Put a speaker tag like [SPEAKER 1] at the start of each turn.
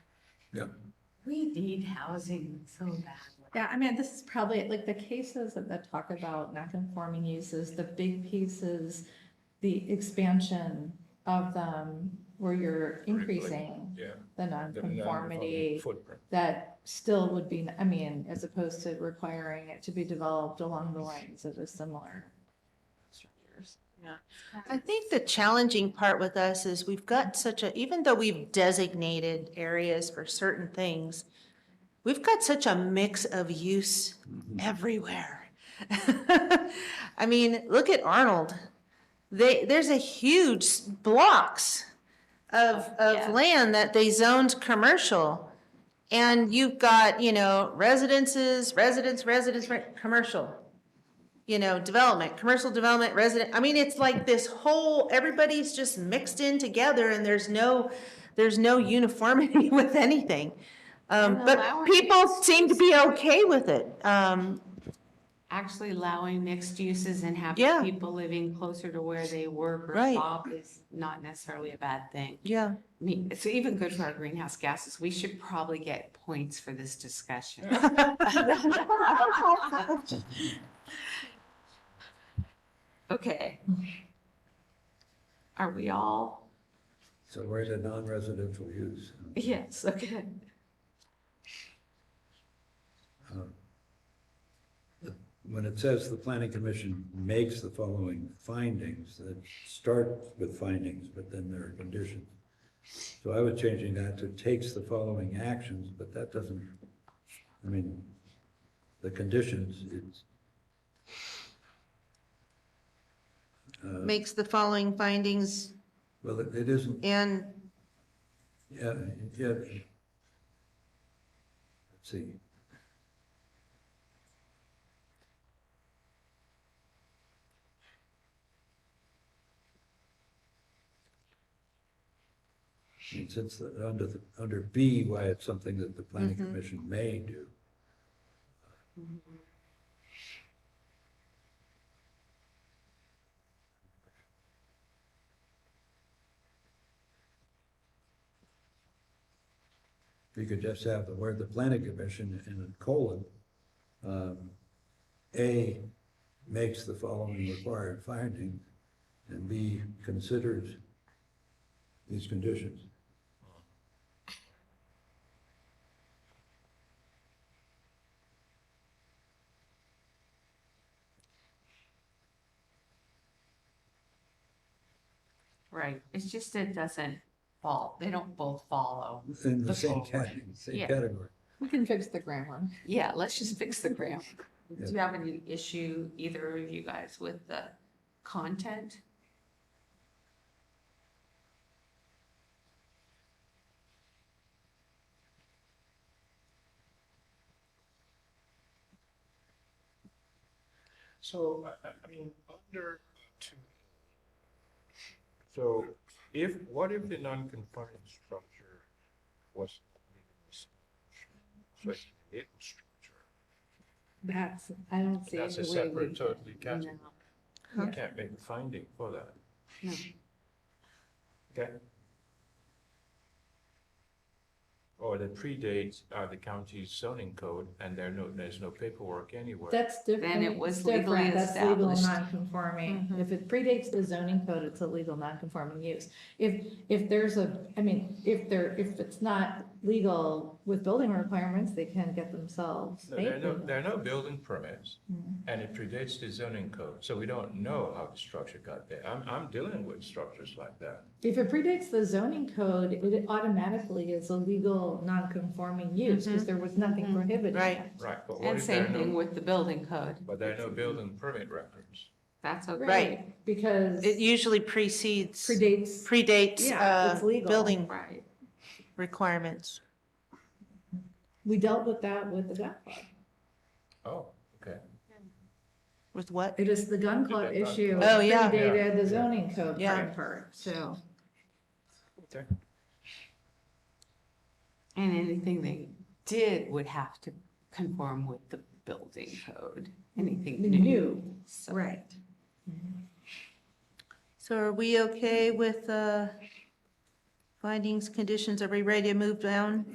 [SPEAKER 1] Yeah.
[SPEAKER 2] We need housing so badly.
[SPEAKER 3] Yeah, I mean, this is probably, like, the cases that, that talk about non-conforming uses, the big pieces, the expansion of them, where you're increasing
[SPEAKER 1] Yeah.
[SPEAKER 3] the
[SPEAKER 1] the
[SPEAKER 3] nonconformity,
[SPEAKER 1] Footprint.
[SPEAKER 3] that still would be, I mean, as opposed to requiring it to be developed along the lines of a similar structures.
[SPEAKER 4] I think the challenging part with us is we've got such a, even though we've designated areas for certain things, we've got such a mix of use everywhere. I mean, look at Arnold. They, there's a huge s- blocks of,
[SPEAKER 2] Yeah.
[SPEAKER 4] of land that they zoned commercial. And you've got, you know, residences, residence, residence, re- commercial you know, development, commercial development, resident, I mean, it's like this whole, everybody's just mixed in together and there's no, there's no uniformity with anything. Um,
[SPEAKER 2] And
[SPEAKER 4] but
[SPEAKER 2] allowing
[SPEAKER 4] people seem to be okay with it. Um,
[SPEAKER 2] Actually allowing mixed uses and
[SPEAKER 4] Yeah.
[SPEAKER 2] having people living closer to where they work or
[SPEAKER 4] Right.
[SPEAKER 2] shop is not necessarily a bad thing.
[SPEAKER 4] yeah,
[SPEAKER 2] I mean, it's even good for our greenhouse gases. We should probably get points for this discussion. Okay. Are we all?
[SPEAKER 1] So where's the non-residential use?
[SPEAKER 2] Yes, okay.
[SPEAKER 1] Um, the- When it says the planning commission makes the following findings, that start with findings, but then there are conditions. So I was changing that to takes the following actions, but that doesn't, I mean, the conditions, it's,
[SPEAKER 4] makes the following findings
[SPEAKER 1] well, it it isn't
[SPEAKER 4] and,
[SPEAKER 1] Yeah, yeah. Let's see. And since, the- under, the- under B, why it's something that the planning commission may do. You could just have the word the planning commission and a colon. um, A makes the following required finding, and B considers these conditions.
[SPEAKER 2] Right. It's just it doesn't fall. They don't both follow.
[SPEAKER 1] In the
[SPEAKER 2] The
[SPEAKER 1] same
[SPEAKER 2] full word.
[SPEAKER 1] category, same
[SPEAKER 2] Yeah.
[SPEAKER 1] category.
[SPEAKER 3] We can fix the grammar.
[SPEAKER 2] Yeah, let's just fix the grammar.
[SPEAKER 1] Yeah.
[SPEAKER 2] Do you have any issue, either of you guys, with the content?
[SPEAKER 5] So, I, I- I mean, under two. So if, what if the non-conforming structure was so it's a little structure?
[SPEAKER 3] That's, I don't see.
[SPEAKER 5] That's a
[SPEAKER 2] the way we-
[SPEAKER 5] separate, totally category.
[SPEAKER 2] No.
[SPEAKER 5] You
[SPEAKER 2] Yeah.
[SPEAKER 5] can't make a finding for that.
[SPEAKER 2] No.
[SPEAKER 5] Okay. Or Oh, that predates uh, the county's zoning code, and there no, there's no paperwork anywhere.
[SPEAKER 3] That's different.
[SPEAKER 2] Then it was
[SPEAKER 3] It's different.
[SPEAKER 2] legally
[SPEAKER 3] That's legal
[SPEAKER 2] established. Mm-hmm.
[SPEAKER 3] non-conforming. If it predates the zoning code, it's a legal non-conforming use. If, if there's a, I mean, if there, if it's not legal with building requirements, they can get themselves.
[SPEAKER 5] No, There are
[SPEAKER 3] made
[SPEAKER 5] no,
[SPEAKER 3] legal.
[SPEAKER 5] there are no building permits,
[SPEAKER 2] Mm-hmm.
[SPEAKER 5] and it predates the zoning code, so we don't know how the structure got there. I'm, I'm dealing with structures like that.
[SPEAKER 3] If it predates the zoning code, it automatically is a legal non-conforming use
[SPEAKER 2] Mm-hmm.
[SPEAKER 3] because there was nothing prohibited.
[SPEAKER 4] Right.
[SPEAKER 5] Right, but what
[SPEAKER 2] And
[SPEAKER 5] if there are
[SPEAKER 2] same thing
[SPEAKER 5] no,
[SPEAKER 2] with the building code.
[SPEAKER 5] but there are no building permit records?
[SPEAKER 2] That's okay.
[SPEAKER 3] Right, because
[SPEAKER 4] it usually precedes,
[SPEAKER 3] predates,
[SPEAKER 4] predates,
[SPEAKER 3] Yeah,
[SPEAKER 4] uh,
[SPEAKER 3] it's legal.
[SPEAKER 4] building
[SPEAKER 2] Right.
[SPEAKER 4] requirements.
[SPEAKER 3] we dealt with that with the gun club.
[SPEAKER 5] Oh, okay.
[SPEAKER 4] With what?
[SPEAKER 3] It is the gun club
[SPEAKER 5] Did that gun
[SPEAKER 3] issue.
[SPEAKER 4] club. Oh, yeah.
[SPEAKER 3] Predated the zoning code
[SPEAKER 4] Yeah.
[SPEAKER 3] part, part, so.
[SPEAKER 5] Okay.
[SPEAKER 2] And anything they did would have to conform with the building code, anything new.
[SPEAKER 3] New,
[SPEAKER 2] So-
[SPEAKER 3] right.
[SPEAKER 4] So are we okay with, uh, findings, conditions? Are we ready to move down?